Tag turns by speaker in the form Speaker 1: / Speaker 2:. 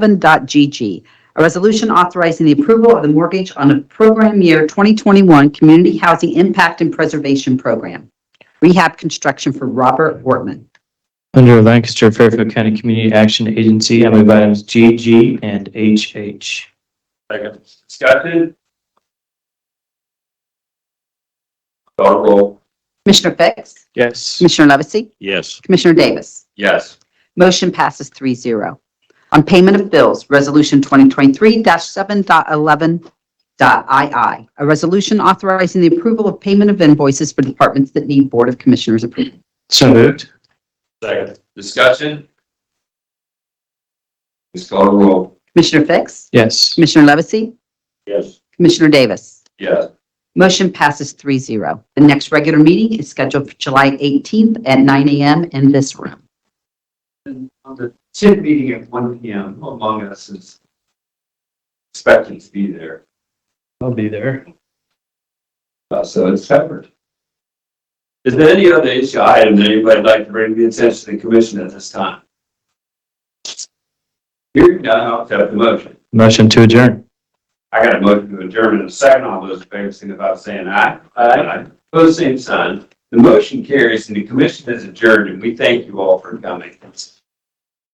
Speaker 1: 7.11.GG, a resolution authorizing the approval of the mortgage on the program year 2021 Community Housing Impact and Preservation Program, rehab construction for Robert Wortman.
Speaker 2: Under Lancaster Fairfield County Community Action Agency, I move items G, G, and H, H.
Speaker 3: Second. Discussion? Call roll.
Speaker 1: Commissioner Fix?
Speaker 2: Yes.
Speaker 1: Commissioner Levesey?
Speaker 3: Yes.
Speaker 1: Commissioner Davis?
Speaker 3: Yes.
Speaker 1: Motion passes 3-0. On payment of bills, Resolution 2023-7.11.II, a resolution authorizing the approval of payment of invoices for departments that need Board of Commissioners approval.
Speaker 2: So moved.
Speaker 3: Second. Discussion? Please call roll.
Speaker 1: Commissioner Fix?
Speaker 2: Yes.
Speaker 1: Commissioner Levesey?
Speaker 3: Yes.
Speaker 1: Commissioner Davis?
Speaker 3: Yes.
Speaker 1: Motion passes 3-0. The next regular meeting is scheduled for July 18th at 9 a.m. in this room.
Speaker 3: On the TIP meeting at one P M, among us is expecting to be there,
Speaker 2: I'll be there.
Speaker 3: Uh, so it's covered. Is there any other issue item that anybody'd like to bring to the attention of the commission at this time? Hearing none, I'll accept the motion.
Speaker 2: Motion to adjourn.
Speaker 3: I got a motion to adjourn in a second. All those in favor signify by saying aye. Aye. Pose same sign. The motion carries and the commission is adjourned and we thank you all for coming.